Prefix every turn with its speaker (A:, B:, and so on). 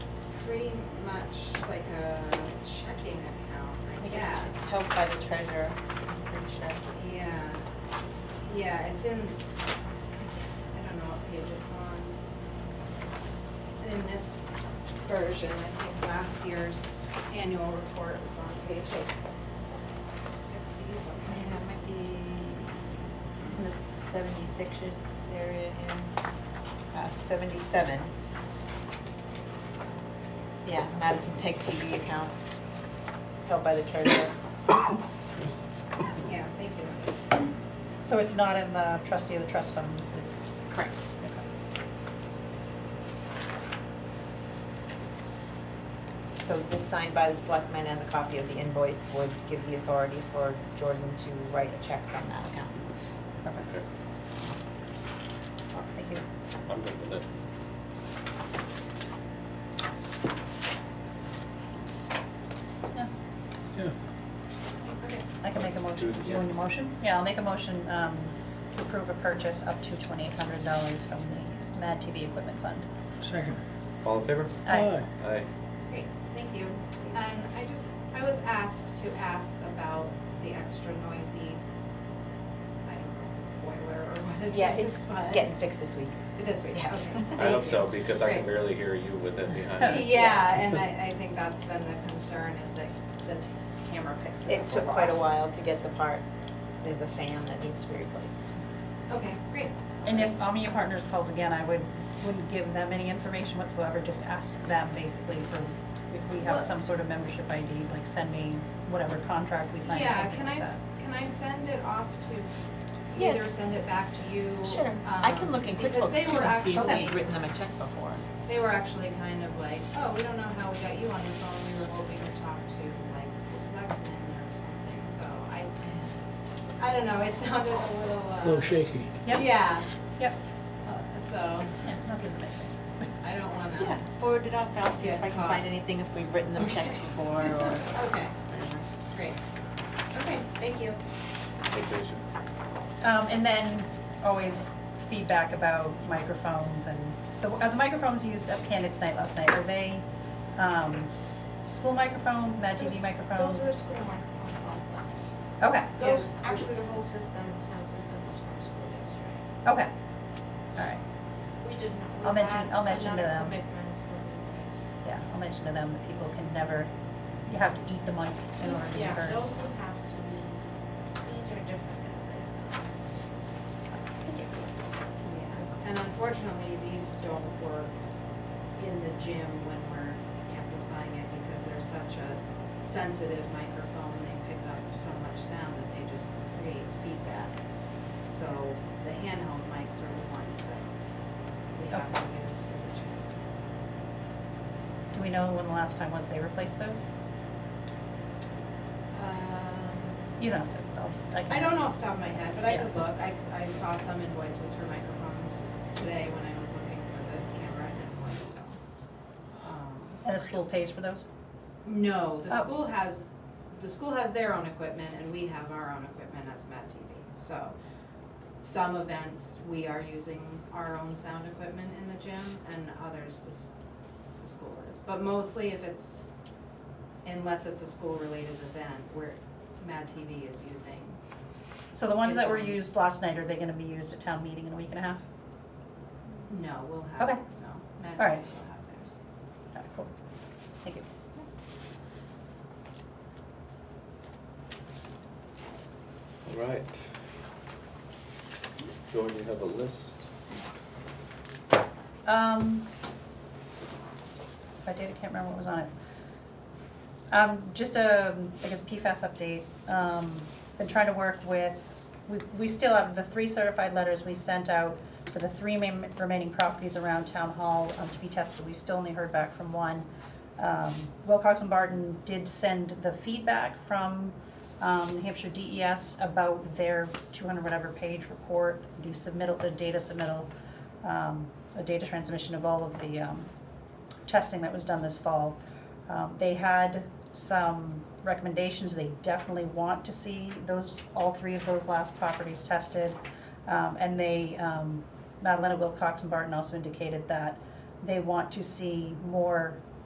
A: pretty much like a checking account, I
B: think
A: guess.
B: it's, it's held by the treasurer, I'm pretty sure.
A: Yeah, yeah, it's in, I don't know what page it's on. In this version, I think last year's annual report was on page like sixty, something,
B: Yeah, it might
A: sixty.
B: It's in the seventy-sixers area in, uh, seventy-seven. Yeah, Madison Peg TV account, it's held by the treasurer.
A: Yeah, thank you.
C: So it's not in the trustee of the trust funds, it's,
B: Correct.
C: okay.
B: So this signed by the selectmen and the copy of the invoice would give the authority for Jordan to write a check from that account.
C: Okay.
D: Okay,
B: Thank you.
D: I'm good with it.
C: Yeah,
E: Yeah.
A: Okay.
C: I can make a motion.
D: Do it,
C: You want
D: yeah.
C: a motion? Yeah, I'll make a motion um, to approve a purchase up to twenty-eight hundred dollars from the Mad TV Equipment Fund.
E: Second.
D: All in favor?
C: Aye.
D: Aye.
A: Great, thank you. And I just, I was asked to ask about the extra noisy, I don't know if it's boiler or what it is.
B: Yeah, it's
A: but-
B: getting fixed this week.
A: This week,
B: Yeah.
A: okay.
D: I hope
A: Thank
D: so,
A: you.
D: because I can
A: Great.
D: barely hear you with it behind me.
A: Yeah, and I, I think that's been the concern is that the t- camera picks it up.
B: It took quite a while to get the part. There's a fan that needs to be replaced.
A: Okay, great.
C: And if Omnia Partners calls again, I would, wouldn't give them any information whatsoever, just ask them basically for, if we
A: Well-
C: have some sort of membership ID, like send me whatever contract we signed or
A: Yeah,
C: something
A: can
C: like
A: I,
C: that.
A: s- can I send it off to,
B: Yeah.
A: either send it back to you?
B: Sure, I can
A: um,
B: look in
A: because they
B: QuickBooks too
A: were
B: and see if
A: actually-
B: we've written them a check before.
A: They were actually kind of like, oh, we don't know how we got you on the phone, we were hoping to talk to like the selectmen or something, so I, I don't know, it sounded a little, uh.
E: A little shaky.
C: Yep.
A: Yeah,
C: Yep,
A: so
C: Yeah, it's not good for
A: I don't wanna.
B: Yeah, forward it up, I'll see if
A: Yeah,
B: I can
A: call.
B: find anything if we've written them checks before or.
A: Okay, great. Okay, thank you.
D: Vacation.
C: Um, and then always feedback about microphones and, the, are the microphones used at candidates night last night, are they, um, school microphone, Mad TV microphones?
F: Those were school microphones last night.
C: Okay,
F: Those, actually, the whole system, sound system was from school yesterday.
C: okay, alright,
F: We didn't, we
C: I'll mention-
F: had
C: I'll mention to
F: another
C: them.
F: commitment to the
C: yeah, I'll mention to them that people can never, you have to eat the mic in order to
F: meeting.
C: be
F: Yeah,
C: heard.
F: those who have to be, these are different than this.
A: Yeah, and unfortunately, these don't work in the gym when we're amplifying it because they're such a sensitive microphone, they pick up so much sound that they just create feedback. So the handheld mics are the ones that we have to use for the gym.
C: Do we know when the last time was they replaced those?
A: Um,
C: You don't have to, I'll, I can.
A: I don't
C: ask.
A: know off the top of my head, but I
C: Yeah.
A: could look, I, I saw some invoices for microphones today when I was looking for the camera invoice, so. um,
C: And the school pays for those?
A: No, the
C: Oh.
A: school has, the school has their own equipment and we have our own equipment as Matt TV. So some events, we are using our own sound equipment in the gym and others the, s- the school is. But mostly if it's, unless it's a school-related event, where Mad TV is using,
C: So the ones that were
A: It's-
C: used last night, are they gonna be used at town meeting in a week and a half?
A: no, we'll have, no,
C: Okay.
A: Mad TV will
C: All right.
A: have theirs.
C: Alright, cool, thank you.
D: All right. Jordan, you have a list?
C: Um, if I did, I can't remember what was on it. Um, just a, I guess PFAS update, um, been trying to work with, we, we still have the three certified letters we sent out for the three main, remaining properties around town hall, um, to be tested, we've still only heard back from one. Um, Wilcox and Barton did send the feedback from, um, New Hampshire DES about their two hundred whatever page report, the submittal, the data submittal, um, a data transmission of all of the, um, testing that was done this fall. Um, they had some recommendations, they definitely want to see those, all three of those last properties tested. Um, and they, um, Madalena Wilcox and Barton also indicated that they want to see more